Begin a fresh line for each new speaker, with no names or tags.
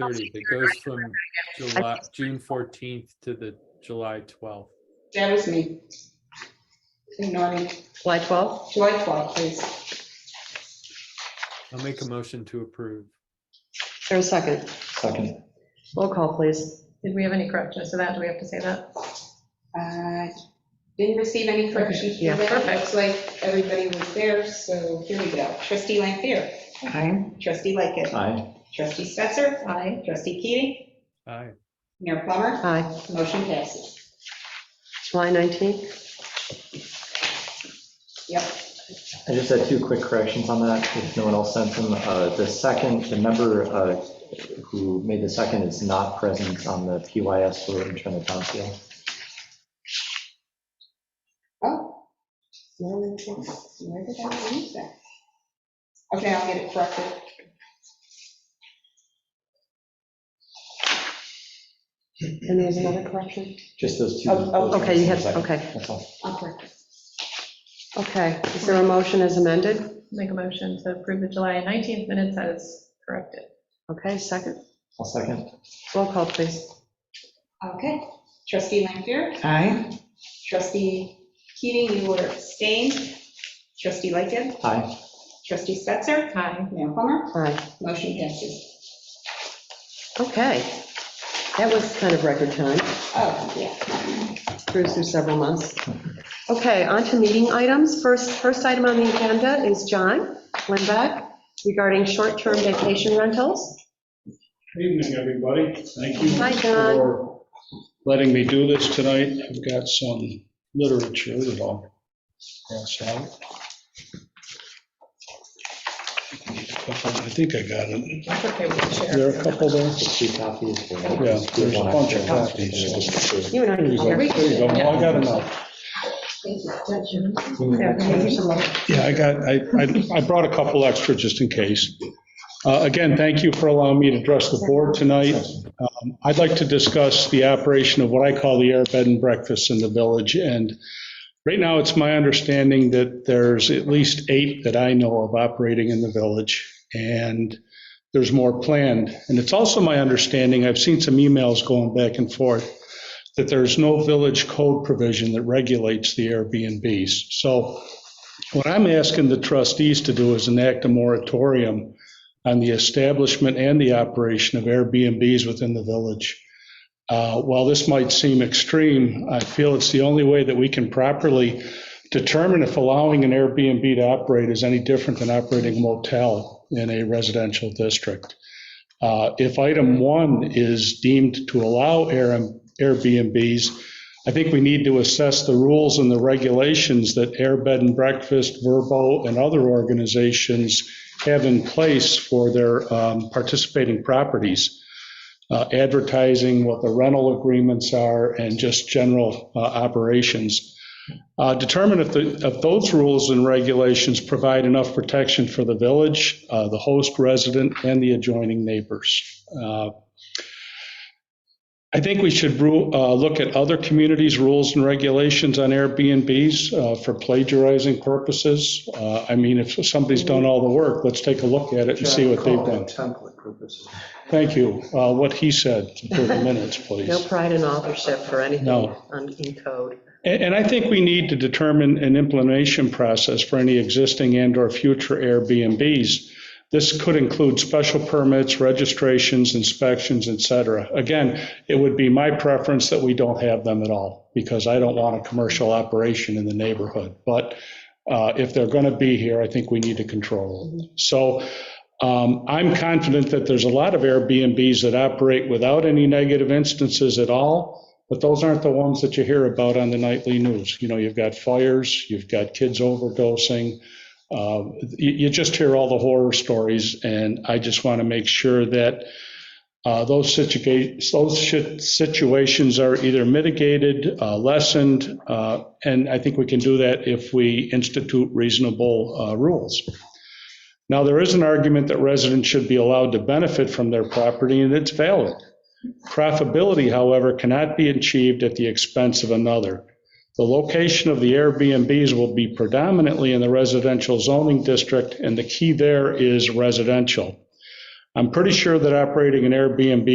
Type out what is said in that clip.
thirtieth. It goes from July, June fourteenth to the July twelfth.
That was me. Naughty.
July 12th?
July 12th, please.
I'll make a motion to approve.
Is there a second?
Second,
Roll call, please.
Did we have any corrections to that? Do we have to say that?
Uh, Didn't receive any corrections
Yeah,
from that.
perfect.
Looks like everybody was there, so here we go. Trustee Lampier.
Okay.
Trustee Lightgev.
aye.
Trustee Stetser.
Aye.
Trustee Keating.
Aye.
Mayor Plummer.
Aye.
Motion passes.
July 19th?
Yep.
I just had two quick corrections on that, if no one else sent them. Uh, The second, the member uh, who made the second is not present on the PYS for return of council.
Oh. Where did I where did I lose that? Okay, I'll get it corrected.
And there's another correction?
Just those two.
Oh, oh,
those
Okay, you
corrections.
have, okay,
That's all.
I'll correct it.
okay. Is there a motion as amended?
Make a motion to approve the July 19th minutes as corrected.
Okay, second.
I'll second.
Roll call, please.
Okay. Trustee Lampier.
Aye.
Trustee Keating, you were abstained. Trustee Lightgev.
Aye.
Trustee Stetser.
Aye.
Mayor Plummer.
Aye.
Motion passes.
Okay. That was kind of record time.
Oh, yeah.
cruise through several months. Okay, on to meeting items. First, first item on the agenda is John Lindbeck regarding short-term vacation rentals.
Good Evening, everybody. Thank you
Hi, John.
for letting me do this tonight. I've got some literature that I'll pass out. I think I got it.
That's okay, we can share.
There are a couple there.
Just two copies. Yeah,
there's a bunch of copies,
You and I.
There you go. There you go. Well, I got enough. Yeah, I got, I, I- I brought a couple extra just in case. Uh, Again, thank you for allowing me to address the board tonight. Um, I'd like to discuss the operation of what I call the air bed and breakfast in the village. And right now, it's my understanding that there's at least eight that I know of operating in the village, and there's more planned. And it's also my understanding, I've seen some emails going back and forth, that there's no village code provision that regulates the Airbnbs. So what I'm asking the trustees to do is enact a moratorium on the establishment and the operation of Airbnbs within the village. Uh, While this might seem extreme, I feel it's the only way that we can properly determine if allowing an Airbnb to operate is any different than operating a motel in a residential district. Uh, If item one is deemed to allow Air- Airbnbs, I think we need to assess the rules and the regulations that Air Bed and Breakfast, Verbo, and other organizations have in place for their um, participating properties, uh, advertising, what the rental agreements are, and just general uh, operations. Uh, Determine if the, if those rules and regulations provide enough protection for the village, uh, the host resident, and the adjoining neighbors. Uh, I think we should ru- uh, look at other communities' rules and regulations on Airbnbs uh, for plagiarizing purposes. Uh, I mean, if somebody's done all the work, let's take a look at it and see what they've done.
Template purposes.
Thank you. Uh, What he said, 30 minutes, please.
No pride in authorship or anything
No.
on, in code.
And and I think we need to determine an implementation process for any existing and/or future Airbnbs. This could include special permits, registrations, inspections, et cetera. Again, it would be my preference that we don't have them at all, because I don't want a commercial operation in the neighborhood. But uh, if they're going to be here, I think we need to control it. So um, I'm confident that there's a lot of Airbnbs that operate without any negative instances at all. But those aren't the ones that you hear about on the nightly news. You know, you've got fires, you've got kids overdosing. uh, You you just hear all the horror stories, and I just want to make sure that uh, those situa- those shi- situations are either mitigated, uh, lessened, uh, and I think we can do that if we institute reasonable uh, rules. Now, there is an argument that residents should be allowed to benefit from their property, and it's valid. Profitability, however, cannot be achieved at the expense of another. The location of the Airbnbs will be predominantly in the residential zoning district, and the key there is residential. I'm pretty sure that operating an Airbnb